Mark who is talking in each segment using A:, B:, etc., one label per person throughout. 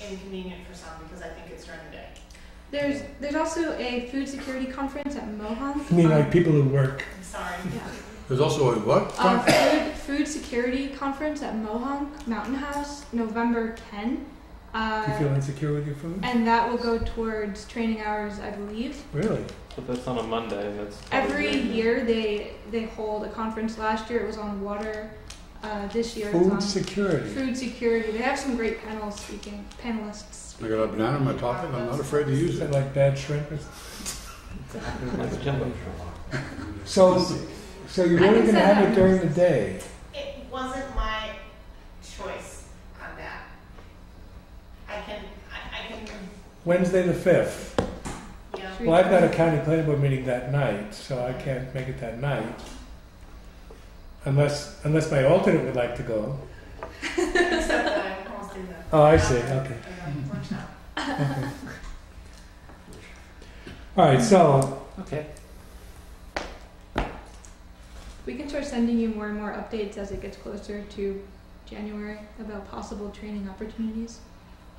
A: inconvenient for some because I think it's during the day.
B: There's there's also a food security conference at Mohonk.
C: I mean,
B: um,
C: like people who work.
A: I'm sorry.
B: yeah.
D: There's also a what?
B: Uh, food, food security conference at Mohonk Mountain House, November 10.
C: Do you
B: Uh,
C: feel insecure with your food?
B: and that will go towards training hours, I believe.
C: Really?
E: But that's on a Monday. That's probably
B: Every
E: good.
B: year they they hold a conference. Last year it was on water. Uh, this year
C: Food
B: it's on
C: security.
B: food security. They have some great panels speaking panelists.
D: I
B: Speaking.
D: got a banana in my pocket. I'm not afraid to
C: Is
D: use
C: that
D: it.
C: like bad shrimp? It's-
E: That's jumbo.
C: So, so you're
B: I
C: only
B: think
C: going to
B: so,
C: have
B: yeah.
C: it during the day.
A: It wasn't my choice on that. I can, I, I can,
C: Wednesday the 5th.
A: you know,
B: Should we
C: Well, I've
B: try-
C: got a county planning board meeting that night, so I can't make it that night. Unless, unless my alternate would like to go.
A: except that I almost did that.
C: Oh, I see. Okay.
A: Workshop.
C: okay. All right, so
E: Okay.
B: We can start sending you more and more updates as it gets closer to January about possible training opportunities,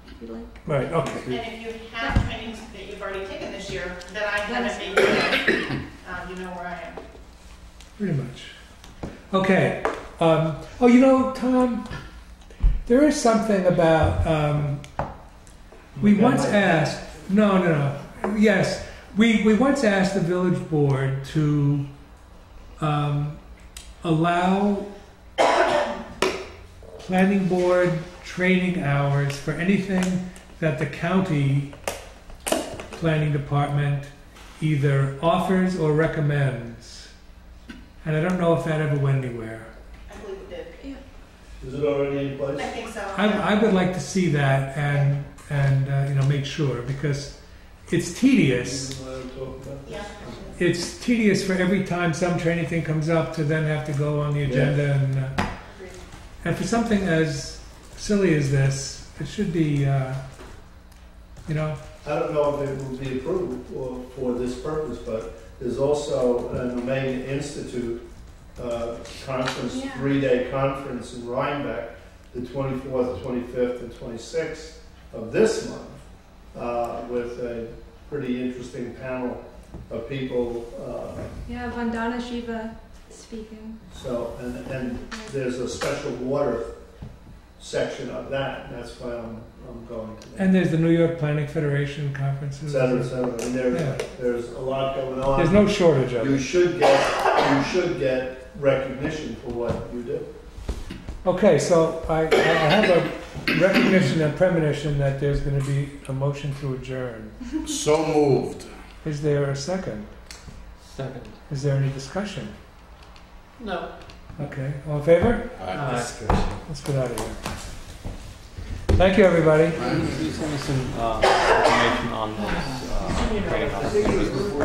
B: if you'd like.
C: right, okay.
A: And if you have trainings that you've already taken this year that I haven't made, yet, um, you know where I am.
C: Pretty much. Okay. Um, oh, you know, Tom, there is something about. Um, we once asked. No, no, no. Yes, we we once asked the village board to um, allow planning board training hours for anything that the county planning department either offers or recommends. And I don't know if that ever went anywhere.
A: I believe it did.
D: Is it already in
A: I
D: place?
A: think so.
C: I, I would like to see that and and uh, you know make sure because it's tedious.
A: Yeah.
C: It's tedious for every time some training thing comes up to then have to go on the agenda and uh,
A: Agreed.
C: and for something as silly as this, it should be uh, you know
D: I don't know if it will be approved for, for this purpose, but there's also an Omega Institute uh, conference,
B: Yeah.
D: three-day conference in Rhinebeck, the 24th, 25th, and 26th of this month, uh, with a pretty interesting panel of people. uh,
B: Yeah, Vandana Shiva speaking.
D: So, and, and there's a special water section of that, and that's why I'm, I'm going to that.
C: and there's the New York Planning Federation conferences.
D: Et cetera, et cetera. And
C: Yeah.
D: there, there's a lot going on.
C: There's no shortage of
D: You
C: it.
D: should get, you should get recognition for what you do.
C: Okay, so I, I have a recognition and premonition that there's going to be a motion to adjourn.
D: So moved.
C: Is there a second?
E: Second.
C: Is there any discussion?
E: No.
C: Okay, all in favor?
E: Aye.
C: Let's get out of here. Thank you, everybody.
E: Can you send me some uh, information on this? Uh, training opportunities?